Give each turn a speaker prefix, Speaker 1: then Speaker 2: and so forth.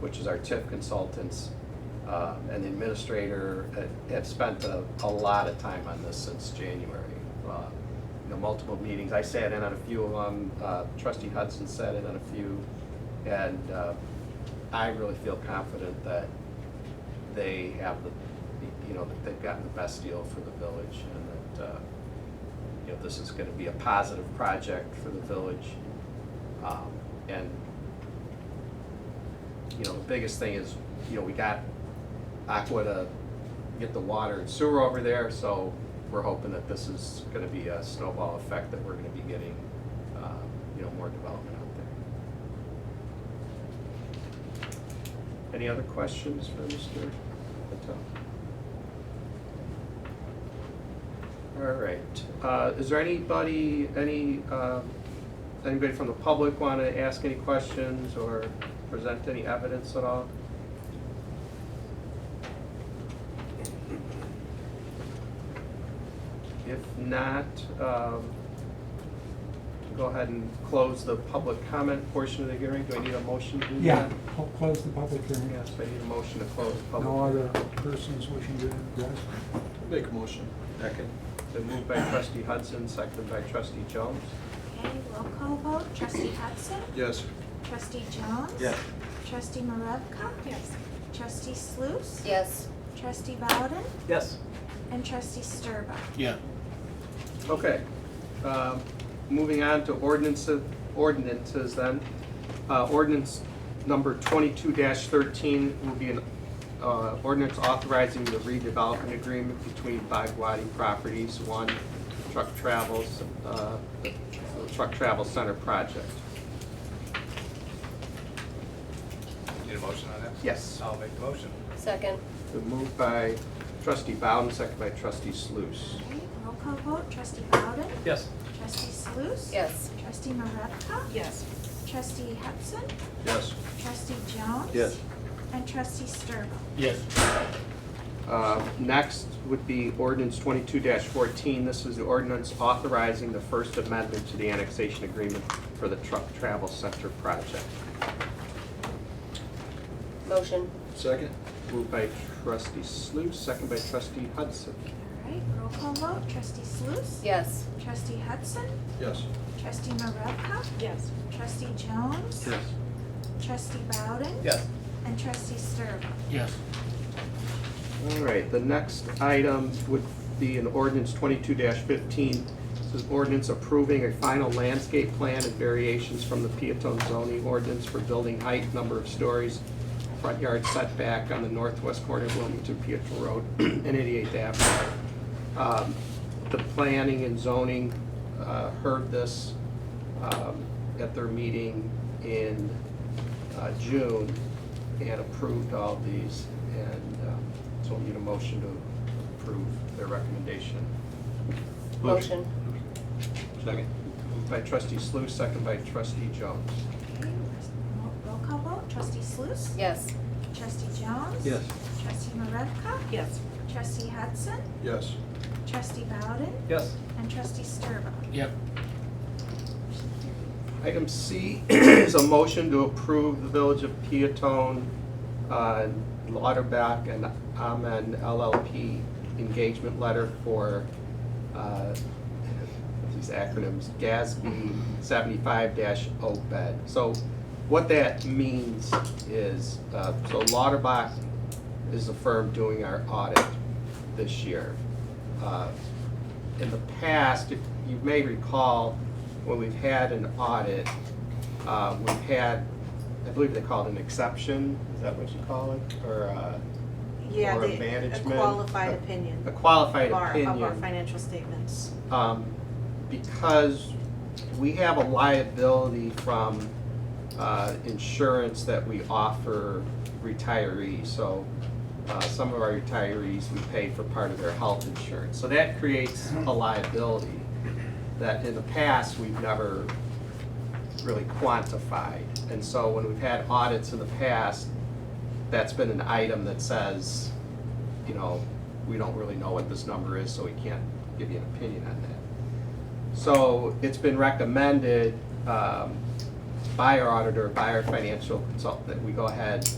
Speaker 1: which is our TIF consultants, uh, and the administrator have- have spent a, a lot of time on this since January. Uh, You know, multiple meetings, I sat in on a few of them, uh, trustee Hudson sat in on a few, and uh, I really feel confident that they have the, you know, that they've gotten the best deal for the village, and that, uh, you know, this is gonna be a positive project for the village. Um, And, you know, the biggest thing is, you know, we got Aqua to get the water and sewer over there, so we're hoping that this is gonna be a snowball effect, that we're gonna be getting, um, you know, more development out there. Any other questions for Mr. Patel? All right, uh, is there anybody, any, uh, anybody from the public want to ask any questions or present any evidence at all? If not, um, go ahead and close the public comment portion of the hearing. Do I need a motion to do that?
Speaker 2: Yeah, I'll close the public hearing.
Speaker 1: Yes, I need a motion to close the public.
Speaker 2: No other persons wishing to address.
Speaker 3: Make a motion. Second.
Speaker 1: Been moved by trustee Hudson, seconded by trustee Jones.
Speaker 4: Okay, roll call vote, trustee Hudson?
Speaker 3: Yes.
Speaker 4: Trustee Jones?
Speaker 3: Yes.
Speaker 4: Trustee Maravka? Yes. Trustee Sluse?
Speaker 5: Yes.
Speaker 4: Trustee Bowden?
Speaker 1: Yes.
Speaker 4: And trustee Sturba?
Speaker 3: Yeah.
Speaker 1: Okay, um, moving on to ordinances, ordinances then. Uh, Ordinance number twenty-two thirteen will be an uh, ordinance authorizing the redevelopment agreement between Bagwadi Properties One Truck Travels, uh, Truck Travel Center Project.
Speaker 3: Need a motion on that?
Speaker 1: Yes.
Speaker 3: I'll make the motion.
Speaker 5: Second.
Speaker 1: Been moved by trustee Bowden, second by trustee Sluse.
Speaker 4: Okay, roll call vote, trustee Bowden?
Speaker 3: Yes.
Speaker 4: Trustee Sluse?
Speaker 5: Yes.
Speaker 4: Trustee Maravka?
Speaker 5: Yes.
Speaker 4: Trustee Hudson?
Speaker 3: Yes.
Speaker 4: Trustee Jones?
Speaker 3: Yes.
Speaker 4: And trustee Sturba?
Speaker 3: Yes.
Speaker 1: Uh, Next would be ordinance twenty-two fourteen. This is the ordinance authorizing the First Amendment to the annexation agreement for the truck travel center project.
Speaker 5: Motion.
Speaker 3: Second.
Speaker 1: Moved by trustee Sluse, second by trustee Hudson.
Speaker 4: All right, roll call vote, trustee Sluse?
Speaker 5: Yes.
Speaker 4: Trustee Hudson?
Speaker 3: Yes.
Speaker 4: Trustee Maravka?
Speaker 5: Yes.
Speaker 4: Trustee Jones? Trustee Bowden?
Speaker 3: Yes.
Speaker 4: And trustee Sturba?
Speaker 3: Yes.
Speaker 1: All right, the next item would be an ordinance twenty-two fifteen. This is ordinance approving a final landscape plan and variations from the Peatone zoning ordinance for building height, number of stories, front yard setback on the northwest corner of Wilmington Pietro Road and eighty-eighth Avenue. Um, The planning and zoning uh, heard this um, at their meeting in uh, June and approved all these. And um, so we need a motion to approve their recommendation.
Speaker 5: Motion.
Speaker 1: Second. Moved by trustee Sluse, second by trustee Jones.
Speaker 4: Okay, roll- roll call vote, trustee Sluse?
Speaker 5: Yes.
Speaker 4: Trustee Jones?
Speaker 3: Yes.
Speaker 4: Trustee Maravka?
Speaker 5: Yes.
Speaker 4: Trustee Hudson?
Speaker 3: Yes.
Speaker 4: Trustee Bowden?
Speaker 3: Yes.
Speaker 4: And trustee Sturba?
Speaker 3: Yep.
Speaker 1: Item C is a motion to approve the Village of Peatone, uh, Lauterbach and Amen LLP engagement letter for, uh, these acronyms, GASB seventy-five dash OPED. So what that means is, uh, so Lauterbach is the firm doing our audit this year. Uh, in the past, if you may recall, when we've had an audit, uh, we've had, I believe they call it an exception, is that what you call it? Or, uh,
Speaker 6: Yeah,
Speaker 1: or
Speaker 6: the- a
Speaker 1: management?
Speaker 6: qualified opinion
Speaker 1: a qualified
Speaker 6: of our,
Speaker 1: opinion
Speaker 6: of our financial statements.
Speaker 1: um, because we have a liability from uh, insurance that we offer retirees. So uh, some of our retirees, we pay for part of their health insurance. So that creates a liability that in the past, we've never really quantified. And so when we've had audits in the past, that's been an item that says, you know, we don't really know what this number is, so we can't give you an opinion on that. So it's been recommended um, by our auditor, by our financial consultant, that we go ahead